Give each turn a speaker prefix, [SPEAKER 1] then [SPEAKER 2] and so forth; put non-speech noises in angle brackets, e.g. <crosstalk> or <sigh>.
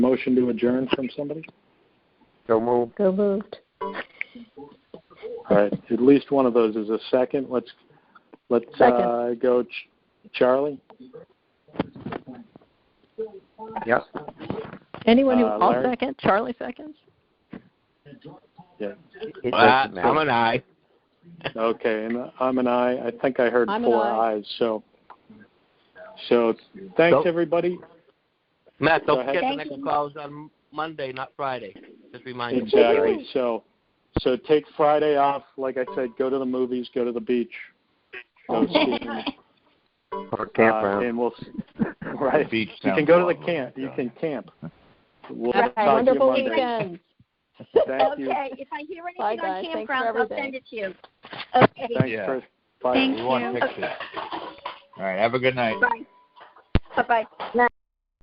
[SPEAKER 1] motion to adjourn from somebody?
[SPEAKER 2] So moved.
[SPEAKER 3] So moved.
[SPEAKER 1] All right, at least one of those is a second. Let's, let's
[SPEAKER 3] Second.
[SPEAKER 1] uh, go Ch- Charlie,
[SPEAKER 2] Yep.
[SPEAKER 3] Anyone who,
[SPEAKER 1] Uh,
[SPEAKER 3] I'll
[SPEAKER 1] Larry?
[SPEAKER 3] second, Charlie seconds?
[SPEAKER 2] It doesn't
[SPEAKER 4] Uh, I'm
[SPEAKER 2] matter.
[SPEAKER 4] an I.
[SPEAKER 1] okay, and I'm an aye. I think I heard
[SPEAKER 3] I'm an
[SPEAKER 1] four
[SPEAKER 3] aye.
[SPEAKER 1] ayes, so. So, thanks,
[SPEAKER 4] So-
[SPEAKER 1] everybody.
[SPEAKER 4] Matt,
[SPEAKER 1] Go
[SPEAKER 4] don't
[SPEAKER 1] ahead.
[SPEAKER 4] forget the
[SPEAKER 3] Thank
[SPEAKER 4] next
[SPEAKER 3] you.
[SPEAKER 4] call is on Monday, not Friday. Just remind you.
[SPEAKER 1] Exactly, so, so take Friday off. Like I said, go to the movies, go to the beach.
[SPEAKER 3] Oh.
[SPEAKER 1] Go
[SPEAKER 3] <laughs>
[SPEAKER 5] <laughs>
[SPEAKER 1] skiing.
[SPEAKER 2] Or
[SPEAKER 1] Uh,
[SPEAKER 2] campground.
[SPEAKER 1] and we'll right.
[SPEAKER 6] Beach
[SPEAKER 1] You can
[SPEAKER 6] sounds
[SPEAKER 1] go to the
[SPEAKER 6] lovely.
[SPEAKER 1] camp. You can camp. We'll
[SPEAKER 3] Have
[SPEAKER 1] talk to
[SPEAKER 3] a
[SPEAKER 1] you
[SPEAKER 3] wonderful
[SPEAKER 1] Monday.
[SPEAKER 3] weekend.
[SPEAKER 1] Thank you.
[SPEAKER 5] Okay, if I hear
[SPEAKER 3] Bye, guys.
[SPEAKER 5] anything on
[SPEAKER 3] Thanks for
[SPEAKER 5] campgrounds, I'll
[SPEAKER 3] everything.
[SPEAKER 5] send it to you. Okay,
[SPEAKER 1] Thanks,
[SPEAKER 6] Yeah.
[SPEAKER 1] Chris. Bye.
[SPEAKER 5] Thank
[SPEAKER 6] We
[SPEAKER 5] <laughs>
[SPEAKER 6] want
[SPEAKER 5] you.
[SPEAKER 6] pictures. All right, have a good night.
[SPEAKER 5] bye. Bye-bye.